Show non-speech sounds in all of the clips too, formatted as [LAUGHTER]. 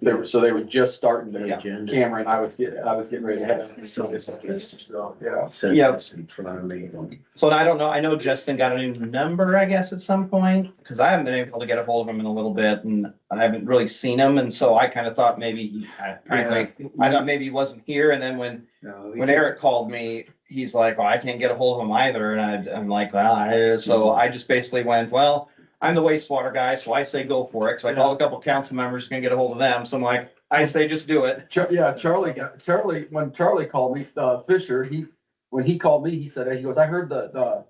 They were, so they were just starting The their agenda. camera and I was getting, I was getting ready to head out. So it's- it's- So, yeah. Set Yeah. this in front of me. So I don't know, I know Justin got a new number, I guess, at some point, because I haven't been able to get a hold of him in a little bit and I haven't really seen him, and so I kind of thought maybe, he- I- frankly, I thought maybe he wasn't here, and then when, No, we when did- Eric called me, he's like, well, I can't get a hold of him either, and I, I'm like, well, I, so Mm-hmm. I just basically went, well, I'm the wastewater guy, so I say go for it, 'cause I called a couple council members, gonna get a hold of them, so I'm like, I say just do it. Char- yeah, Charlie, got- Charlie, when Charlie called me, uh, Fisher, he, when he called me, he said, he goes, I heard the, the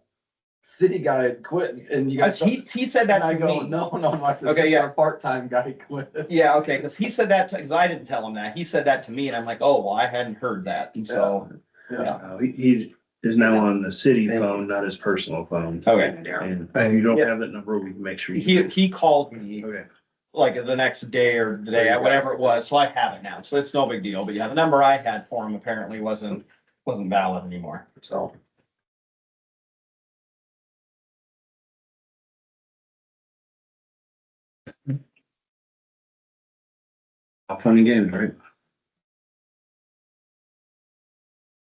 city guy had quit and you guys. Oh, He, he said that And I to go, me. no, no, no, I said, Okay, yeah. our part-time guy [LAUGHS] quit. Yeah, okay, because he said that, because I didn't tell him that. He said that to me and I'm like, oh, well, I hadn't heard that. And so, yeah, Uh, he- He is now on the city phone, not his personal phone. okay. And if you don't have that number, we can make sure. He, you he called me Okay. like the next day or the day, whatever it was, so I have it now. So it's no big deal. But yeah, the number I had for him apparently wasn't, wasn't valid anymore, so. All Fun and games, right?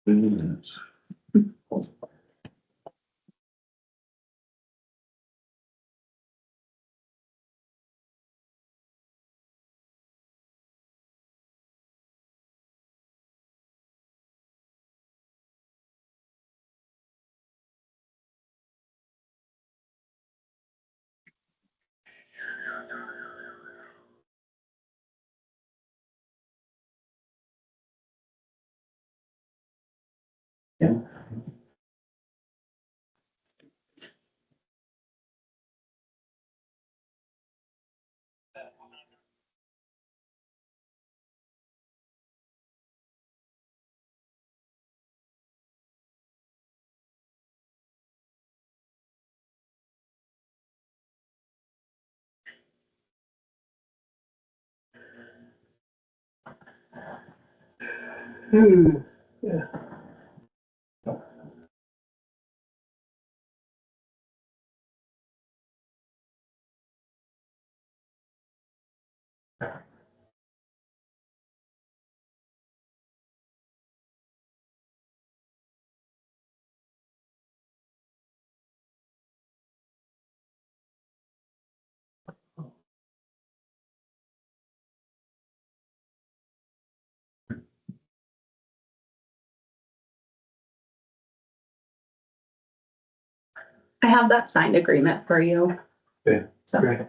Three minutes. I have that signed agreement for you. Okay, So. great.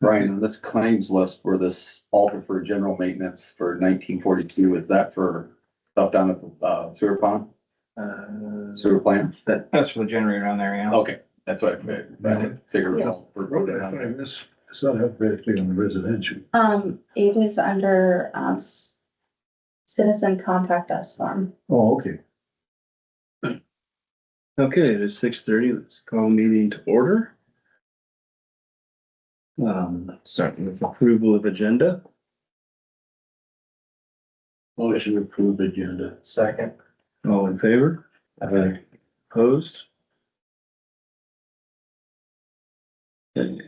Brian, on this claims list for this alter for general maintenance for nineteen forty-two, is that for stuff down at the uh, sewer pond, Uh, sewer plant? That's for the generator on there, yeah. Okay, that's what I figured, I didn't figure it out. for- Road out there, It's it's not up very big on the residential. Um, it is under, um, s- citizen contact us form. Oh, okay. Okay, it is six thirty. Let's call meeting to order. Um, starting with approval of agenda. Motion to approve agenda. Second. All in favor? Aye. Opposed? Okay.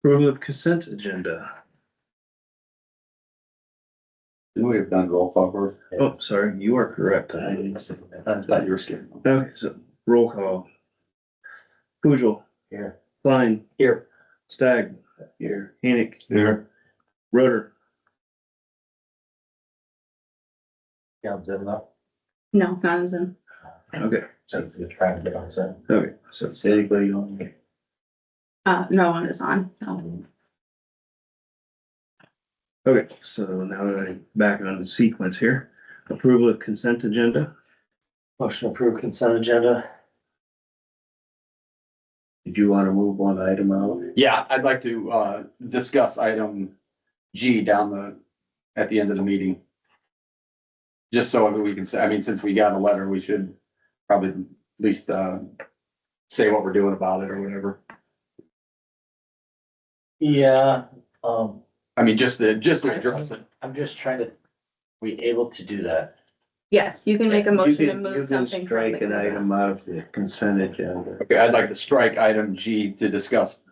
Approval of consent agenda. Didn't we have done roll call first? Oh, sorry, you are correct. I I thought you were skipping. Okay, so roll call. Poojil. Here. Klein. Here. Stag. Here. Enoch. Here. Roder. Sounds good enough. No, not as in, Okay, Sounds good. Trying to get on set. okay, so it's anybody on here. uh, no one is on. No. Okay, so now I'm back on the sequence here. Approval of consent agenda. Motion to approve consent agenda. Did you want to move one item out? Yeah, I'd like to, uh, discuss item G down the, at the end of the meeting. Just so that we can say, I mean, since we got a letter, we should probably at least, uh, say what we're doing about it or whatever. Yeah, um, I mean, just to, just to address it. I'm just trying to, we able to do that? Yes, you can make a You motion to can- you move can something. from Strike an the- item out of the consent agenda. Okay, I'd like to strike item G to discuss